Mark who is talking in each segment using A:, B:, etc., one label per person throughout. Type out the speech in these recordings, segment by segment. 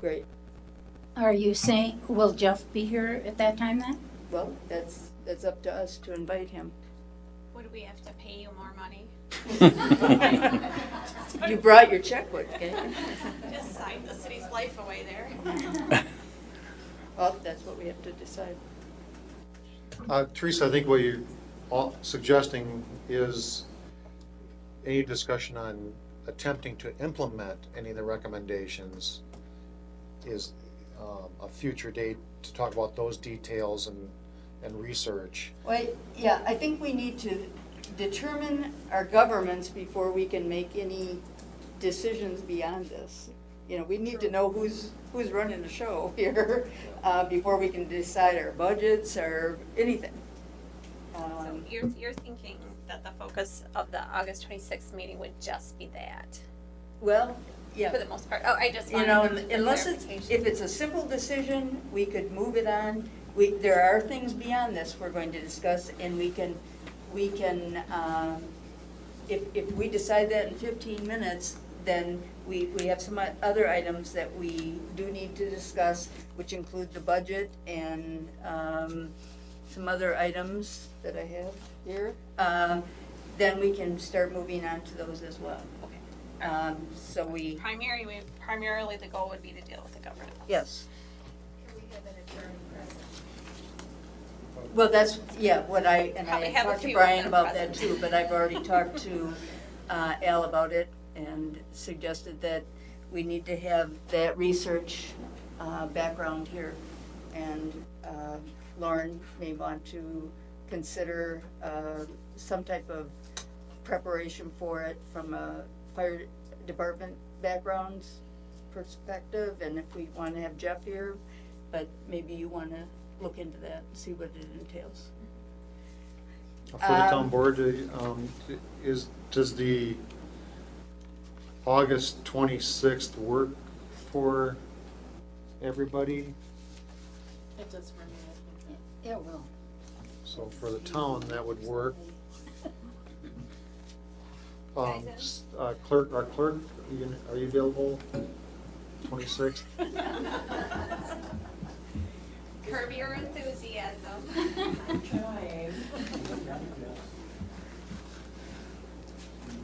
A: Great,
B: Are you saying, will Jeff be here at that time then?
A: well, that's, that's up to us to invite him.
C: Would we have to pay you more money?
A: You brought your checkbook, didn't you?
C: Just sign the city's life away there.
A: Well, that's what we have to decide.
D: Uh, Teresa, I think what you're all suggesting is any discussion on attempting to implement any of the recommendations is um, a future date to talk about those details and, and research.
A: Well, yeah, I think we need to determine our governments before we can make any decisions beyond this. You know, we need to know who's, who's running the show here, uh, before we can decide our budgets or anything.
C: So
A: Um,
C: you're, you're thinking that the focus of the August twenty-sixth meeting would just be that,
A: Well, yeah.
C: for the most part? Oh, I just
A: You
C: wanted
A: know,
C: the
A: unless it's,
C: clarification.
A: if it's a simple decision, we could move it on. We, there are things beyond this we're going to discuss, and we can, we can, um, if, if we decide that in fifteen minutes, then we, we have some other items that we do need to discuss, which include the budget and, um, some other items that I have here. Um, then we can start moving on to those as well.
C: Okay.
A: Um, so we,
C: Primary, we- primarily the goal would be to deal with the government.
A: yes.
E: Can we have an attorney present?
A: Well, that's, yeah, what I, and
C: Probably
A: I
C: have a
A: talked to
C: few of
A: Brian
C: them
A: about that
C: present.
A: too, but I've already talked to uh, Al about it and suggested that we need to have that research uh, background here. And uh, Lauren may want to consider uh, some type of preparation for it from a fire department backgrounds perspective, and if we want to have Jeff here, but maybe you want to look into that and see what it entails.
D: For the town
A: Um,
D: board, uh, um, is, does the August 26th work for everybody?
F: It does for me, I think.
B: It will.
D: So for the town, that would work. Um, s- uh, Clerk, our clerk, are you gonna- are you available? 26th?
C: Curb your enthusiasm.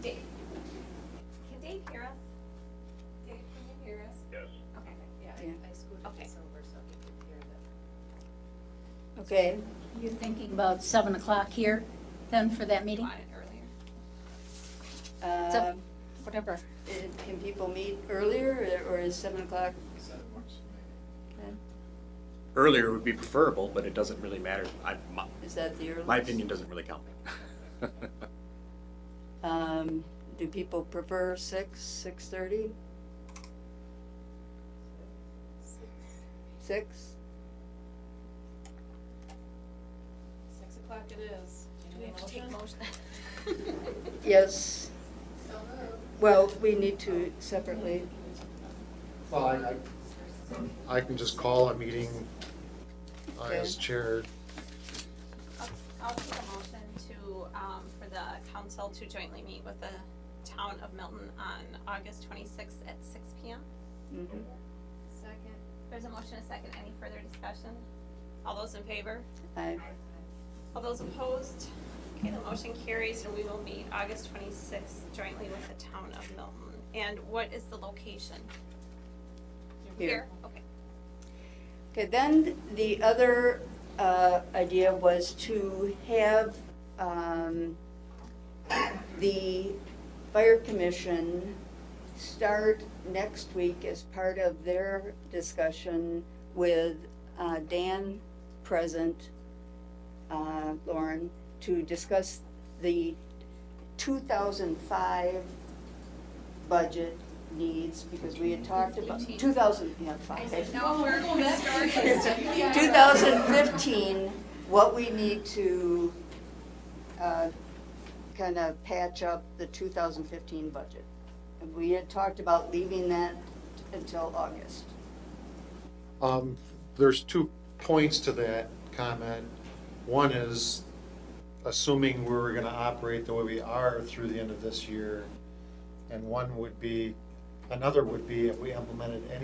C: Dave, can Dave hear us? Dave, can you hear us? Yes. Okay,
F: Yeah,
A: Yeah.
F: I I scooted
C: Okay.
F: this over so he could hear that.
A: Okay,
B: You're thinking about seven o'clock here then for that meeting?
C: on it earlier.
A: uh,
B: Whatever.
A: it- can people meet earlier, or is seven o'clock? Okay.
G: Earlier would be preferable, but it doesn't really matter. I, my,
A: Is that the earliest?
G: my opinion doesn't really count.
A: Um, do people prefer six, six-thirty? Six?
F: Six o'clock it is. Do
C: We
F: you need a
C: have to take
F: motion?
C: motion.
A: Yes. Well, we need to separately,
D: Well, I, I- I can just call a meeting uh, as
A: Okay.
D: chair.
C: I'll- I'll take a motion to, um, for the council to jointly meet with the town of Milton on August twenty-sixth at six P M.
A: mhm.
E: Second.
C: There's a motion, a second, any further discussion? All those in favor?
A: I,
C: All those opposed? Okay, the motion carries and we will meet August twenty-sixth jointly with the town of Milton. And what is the location?
A: Here.
C: Okay.
A: Okay, then the other uh, idea was to have um, the fire commission start next week as part of their discussion with uh, Dan present, uh, Lauren, to discuss the 2005 budget needs, because we had talked about, 2005.
C: No, we're going to start.
A: 2015, what we need to kind of patch up the 2015 budget. And we had talked about leaving that until August.
D: Um, There's two points to that comment. One is, assuming we were going to operate the way we are through the end of this year, and one would be, another would be if we implemented any